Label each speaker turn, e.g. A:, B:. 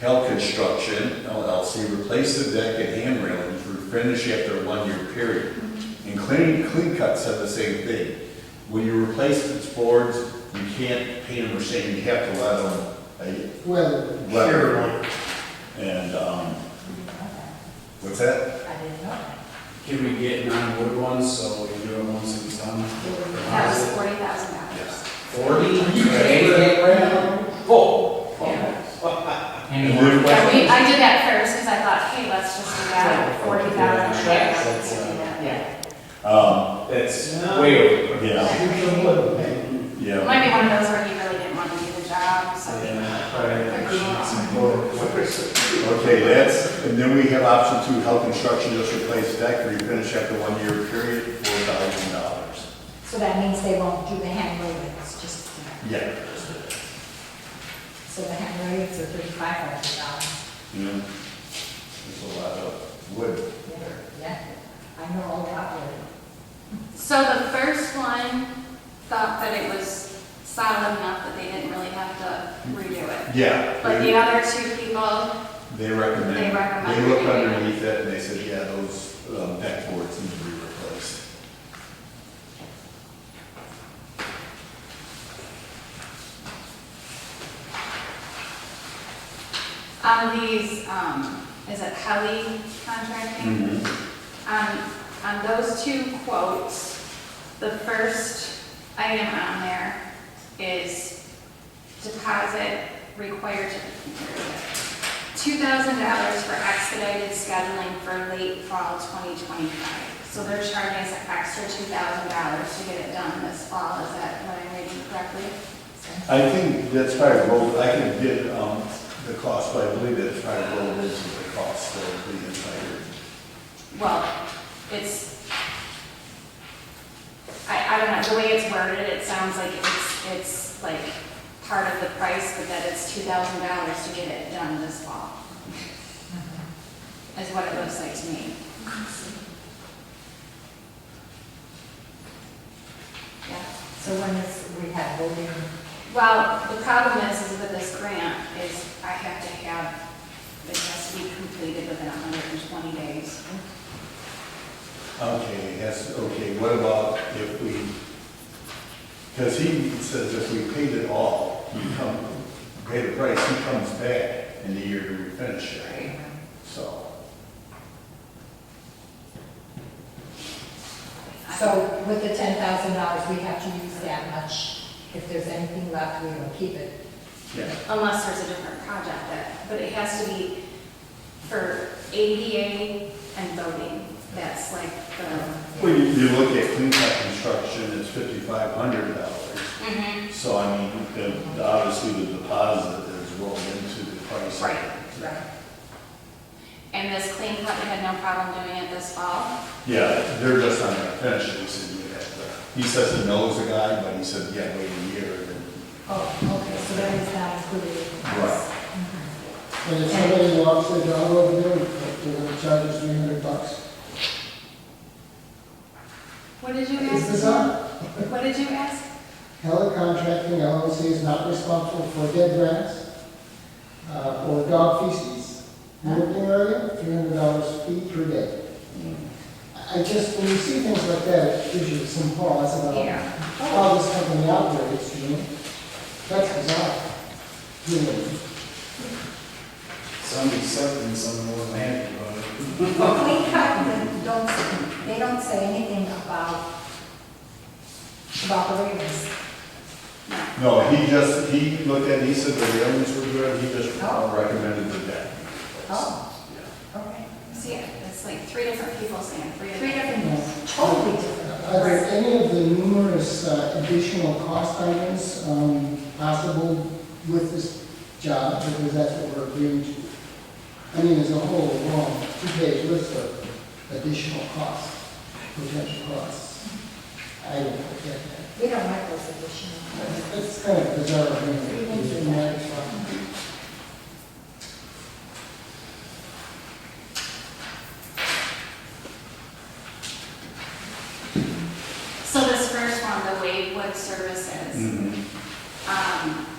A: Hell Construction LLC replaced the deck and hand railing through finish after a one-year period. And Clean, Clean Cut said the same thing. When you replace these boards, you can't paint them or sand, you have to let them, uh,
B: Well,
A: let
B: sure.
A: them. And, um, what's that?
C: I didn't know that.
D: Can we get non-wood ones, so we can do it once it's done?
E: That was forty thousand dollars.
D: Forty?
A: And wood
E: Yeah, we, I did that first, because I thought, hey, let's just do that, forty thousand.
D: That's, uh,
C: Yeah.
A: Um,
D: That's way over.
A: yeah,
B: Shoot some wood, man.
E: It
A: yeah.
E: might be one of those where you really didn't want to do the job, so.
A: Okay, that's, and then we have option two, Hell Construction just replaced deck, refinish after one-year period, four thousand dollars.
C: So that means they won't do the hand railings, just,
A: Yeah.
C: so the hand railings are thirty-five hundred dollars.
A: Yeah. There's a lot of wood there.
C: Yeah, I know all about it.
E: So the first one thought that it was solid enough that they didn't really have to redo it.
A: Yeah.
E: But the
A: they-
E: other two people,
A: They recommend,
E: They recommend
A: they looked
E: it.
A: underneath it and they said, yeah, those um, deck boards need to be replaced.
E: on these, um, is it Helly contracting? Um, on those two quotes, the first item on there is deposit required to, two thousand dollars for expedited scheduling for late fall twenty twenty-five. So they're charging us an extra two thousand dollars to get it done this fall, is that what I'm reading correctly?
A: I think that's probably rolled, I can get um, the cost, but I believe that's probably rolled into the cost of the entire.
E: Well, it's, I, I don't know, the way it's worded, it sounds like it's, it's like part of the price, but that it's two thousand dollars to get it done this fall. Is what it looks like to me. Yeah.
C: So when is, we have voting,
E: Well, the problem is, is with this grant, is I have to have, it has to be completed within hundred and twenty days.
A: Okay, yes, okay, what about if we, because he says if we paid it all, he come, pay the price, he comes back in the year to refinish it,
C: right?
A: so.
E: I-
C: So with the ten thousand dollars, we have to use that much. If there's anything left, we will keep it.
A: Yeah.
E: unless there's a different project that, but it has to be for ADA and voting. That's like the.
A: Well, you, you look at clean cut construction, it's fifty-five hundred dollars. So I mean, the, obviously the deposit is rolled into the price.
E: Right, And this clean cut, they had no problem doing it this fall.
A: Yeah, they're just not gonna finish it, he said, you have to, he says he knows the guy, but he said, yeah, wait a year. and then-
C: Oh, okay, so that is not included in the price.
B: And if somebody walks their dog over there, they're gonna charge us three hundred bucks.
E: What did you
B: Is this
E: ask?
B: on?
E: What did you ask?
B: Heller Contracting LLC is not responsible for dead rats, uh, or dog feces. Working area, three hundred dollars fee per day. I just, when you see things like that, it gives you some pause about
E: Yeah.
B: how this company operates, you know? That's bizarre. Really.
D: Some accepting, some more mad about it.
C: But we cut, they don't, they don't say anything about, about the waivers.
A: No, he just, he looked at, it, he said the railings were good, he just recommended the deck.
C: Oh,
A: Yeah.
C: okay.
E: See, it's like three different people saying three
C: Three
E: different.
C: different, totally different.
B: Are there any of the numerous uh, additional cost items um, possible with this job? Because that's what we're agreeing to. I mean, there's a whole long two-page list of additional costs, potential costs. I don't get that.
C: We don't like those additional.
B: That's- That's kind of bizarre. I mean,
C: We
B: it's
C: don't do
B: in my-
C: that.
E: So this first one, the Wavewood Services.
B: Mm-hmm.
A: Mhm.
E: Um,